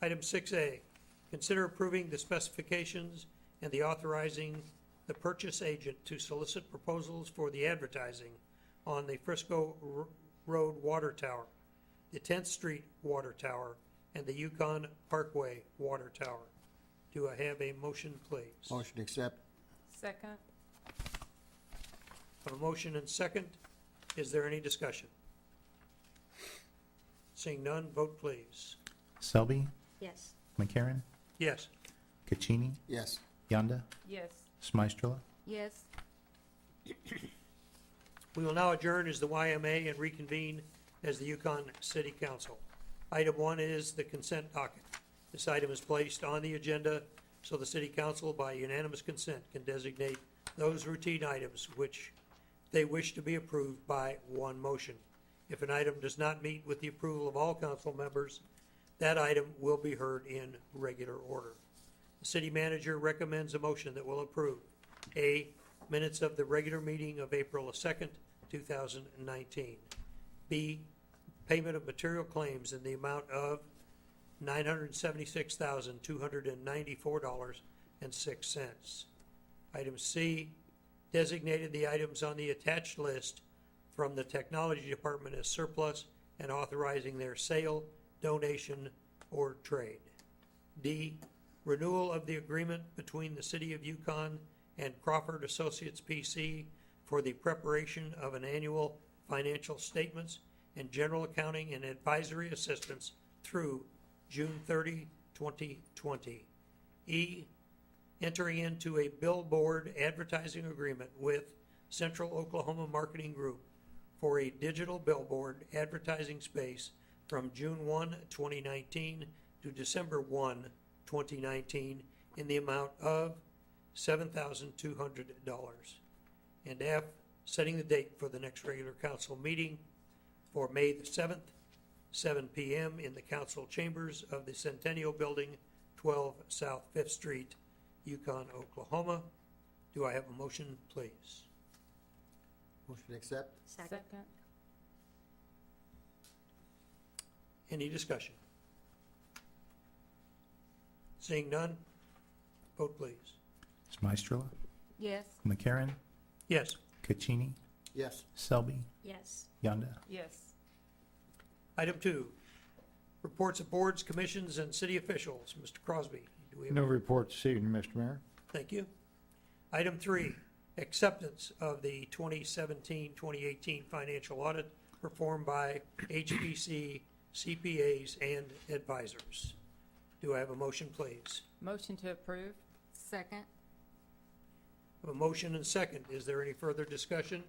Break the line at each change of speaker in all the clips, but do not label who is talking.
Item 6A, consider approving the specifications and the authorizing the purchase agent to solicit proposals for the advertising on the Frisco R- Road Water Tower, the 10th Street Water Tower, and the Yukon Parkway Water Tower. Do I have a motion, please?
Motion to accept.
Second.
Have a motion and second. Is there any discussion? Seeing none, vote please.
Selby,
yes,
McCarran,
Yes.
Caccini,
Yes.
Yonda,
Yes.
Smystrela.
Yes.
We will now adjourn as the YMA and reconvene as the Yukon City Council. Item one is the consent docket. This item is placed on the agenda so the city council by unanimous consent can designate those routine items which they wish to be approved by one motion. If an item does not meet with the approval of all council members, that item will be heard in regular order. The city manager recommends a motion that will approve. A, minutes of the regular meeting of April 2nd, 2019. B, payment of material claims in the amount of $976,294.06. Item C, designated the items on the attached list from the Technology Department as surplus and authorizing their sale, donation, or trade. D, renewal of the agreement between the City of Yukon and Crawford Associates PC for the preparation of an annual financial statements and general accounting and advisory assistance through June 30, 2020. E, entering into a billboard advertising agreement with Central Oklahoma Marketing Group for a digital billboard advertising space from June 1, 2019 to December 1, 2019 in the amount of $7,200. And F, setting the date for the next regular council meeting for May the 7th, 7 PM in the council chambers of the Centennial Building, 12 South Fifth Street, Yukon, Oklahoma. Do I have a motion, please?
Motion to accept.
second,
Any discussion? Seeing none, vote please.
Smystrela,
Yes.
McCarran,
Yes,
Caccini,
Yes.
Selby,
yes,
Yonda,
Yes.
item two, reports of boards, commissions, and city officials. Mr. Crosby, do we have?
No report this evening, Mr. Mayor.
Thank you. Item three, acceptance of the 2017-2018 financial audit performed by HPC CPAs and advisors. Do I have a motion, please?
Motion to approve. Second.
I have A motion and second. Is there any further discussion?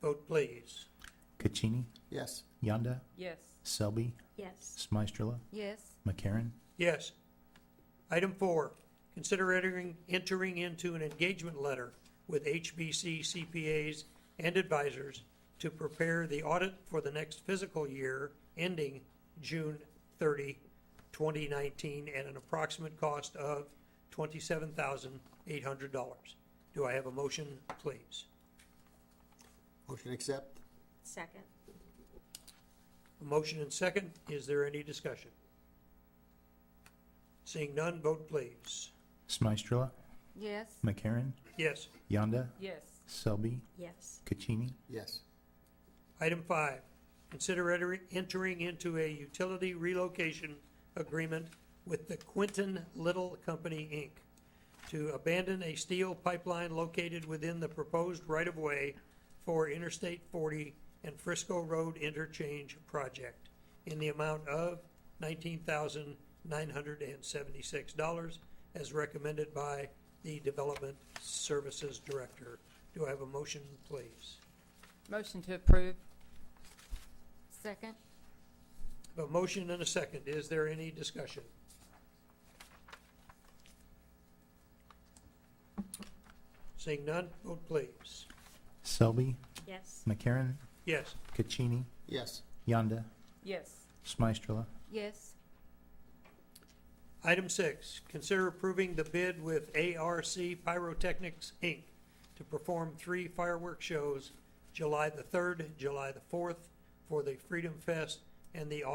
Vote, please.
Caccini,
Yes.
Yonda,
Yes.
Selby,
yes,
Smystrela,
Yes.
McCarran,
Yes. Item four, consider entering, entering into an engagement letter with HBC CPAs and advisors to prepare the audit for the next fiscal year ending June 30, 2019, at an approximate cost of $27,800. Do I have a motion, please?
Motion to accept.
second,
A motion and second. Is there any discussion? Seeing none, vote please.
Smystrela,
Yes.
McCarran,
Yes.
Yonda,
Yes.
Selby,
yes,
Caccini,
Yes.
Item five, consider enter- entering into a utility relocation agreement with the Quinton Little Company, Inc. to abandon a steel pipeline located within the proposed right-of-way for Interstate 40 and Frisco Road Interchange Project in the amount of $19,976 as recommended by the Development Services Director. Do I have a motion, please?
Motion to approve. Second.
A motion and a second. Is there any discussion? Seeing none, vote please.
Selby,
yes,
McCarran,
Yes.
Caccini,
Yes.
Yonda,
Yes.
Smystrela,
Yes.
Item six, consider approving the bid with ARC Pyrotechnics, Inc. to perform three fireworks shows, July the 3rd, July the 4th, for the Freedom Fest and the August